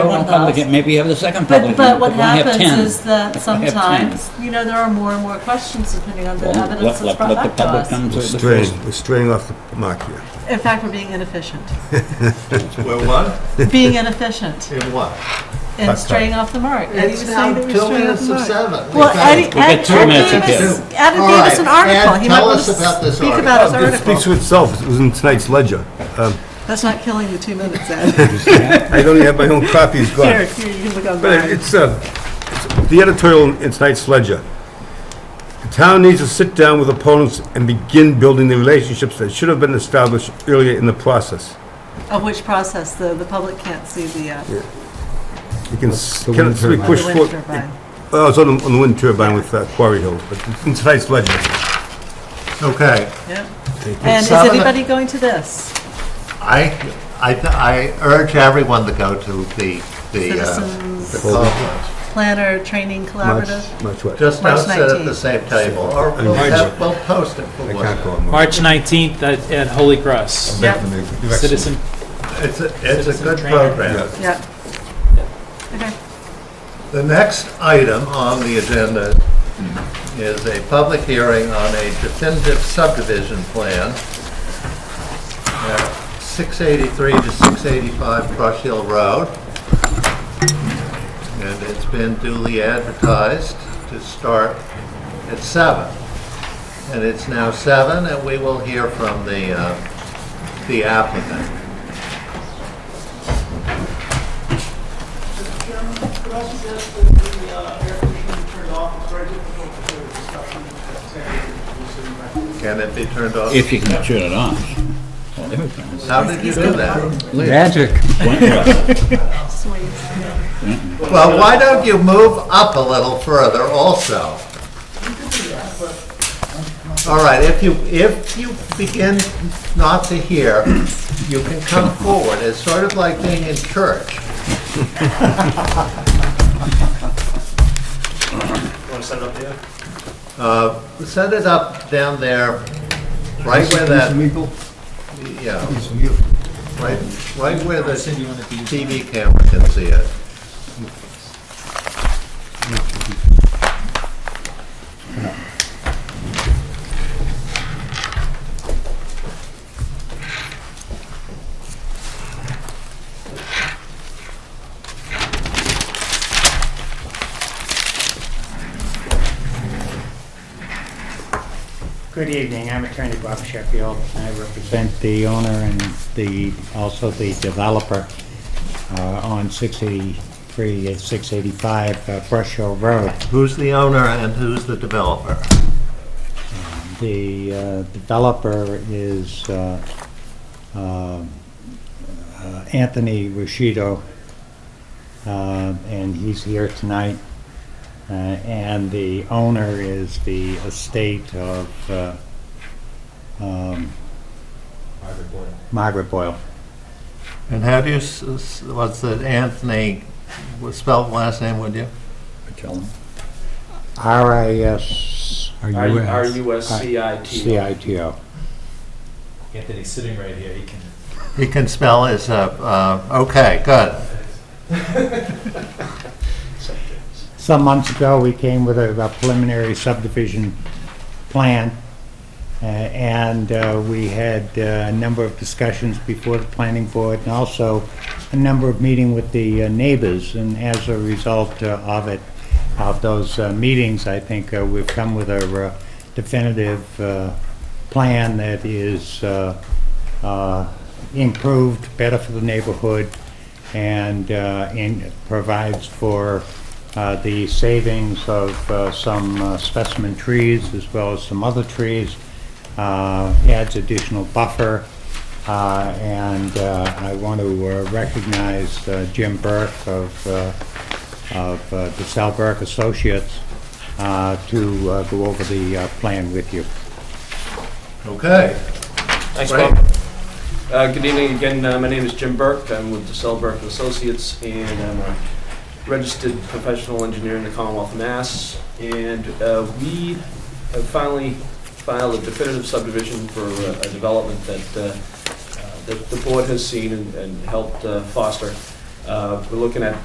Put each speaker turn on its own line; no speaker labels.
one public,
us.
and maybe you have the second
But,
public.
but what
hearing, why have
happens
10?
is that
Why have 10?
sometimes, you know, there are more and more questions depending on the
Well, let-
evidence that's
let-
brought
let the
back to
public
us.
come to
We're
the
straying, we're straying off the mark here.
In fact, we're being inefficient,
Well, what?
being inefficient
In what?
and straying off the mark. Eddie was
It's
saying
now
that we
two
strayed off
minutes
the
of
mark.
seven.
Well, Eddie,
Okay.
got
Ed,
two
Ed
minutes to
gave us,
do.
Ed
All
gave us
right,
an
Ed,
article. He
tell
might
us
want to
about this
Speak
article.
about his
It speaks
article.
for itself, it was in tonight's ledger. Um,
That's not killing the two minutes, Ed.
I don't even have my own copy, it's gone.
Here, here, you can look on
But
mine.
it's, uh, it's- the editorial in tonight's ledger. The town needs to sit down with opponents and begin building the relationships that should have been established earlier in the process.
Of which process, the, the public can't see the, uh,
You can, s-
The
can
wind
it be
turbine.
the
pushed
wind
forward?
turbine.
Well, it's on the, on the wind turbine with uh, Quarry Hill, but it's in tonight's ledger.
Okay,
Yep. And is
Seven-
anybody going to this?
I, I, th- I urge everyone to go to the, the, uh, the
Citizens
conference.
Planner Training
March,
Collaborative?
March what?
Just don't
March
sit at the
19th.
same table, or we'll
March.
have- we'll post it for
I
one.
can't go on.
March 19th at at Holy Cross.
Yep.
Citizen,
It's a, it's a
Citizen
good
training.
program.
Yep. Okay.
The next item on the agenda is a public hearing on a definitive subdivision plan at 683 to 685 Brush Hill Road. And it's been duly advertised to start at seven, And it's now seven, and we will hear from the, uh, the applicant.
Could I just ask that the uh, air conditioning be turned off? It's very difficult to hear the discussion that's happening. We're sitting back there.
Can it be turned off?
If you can turn it off. Well, there we go.
How did you do that?
Magic.
Wentworth.
Well, why don't you move up a little further also? All right, if you, if you begin not to hear, you can come forward. It's sort of like being in church.
Want to set it up there?
Uh, Set it up down there, right where that, yeah, right, right where the TV camera can see it.
Good evening, I'm attorney Bob Sheffield, and I represent the owner and the, also the developer uh, on 683 and 685 uh, Brush Hill Road.
Who's the owner and who's the developer?
The uh, developer is uh, um, uh, Anthony Ruscido, uh, and he's here tonight. Uh, And the owner is the estate of uh, um, Margaret Boyle.
And how do you, s- s- what's the Anthony, spell the last name, would you?
Tell them.
R-I-S.
R-U-S-C-I-T.
C-I-T-O.
Anthony's sitting right here, he can
He can spell his, uh, uh, okay, good.
Some months ago, we came with a a preliminary subdivision plan, uh, and uh, we had uh, a number of discussions before the planning board, and also a number of meeting with the uh, neighbors, and as a result uh, of it, of those uh, meetings, I think uh, we've come with a uh, definitive uh, plan that is uh, uh, improved, better for the neighborhood, and uh, in- provides for uh, the savings of uh, some uh, specimen trees as well as some other trees, uh, adds additional buffer, uh, and uh, I want to uh, recognize uh, Jim Burke of uh, of uh, the Sal Burke Associates uh, to uh, go over the uh, plan with you.
Okay.
Thanks,
Right.
Bob. Uh, Good evening again. Uh, My name is Jim Burke. I'm with DeSalle Burke and Associates, and I'm a registered professional engineer in the Commonwealth of Mass. And uh, we have finally filed a definitive subdivision for uh, a development that uh, uh, that the board has seen and- and helped uh, foster. Uh, We're looking at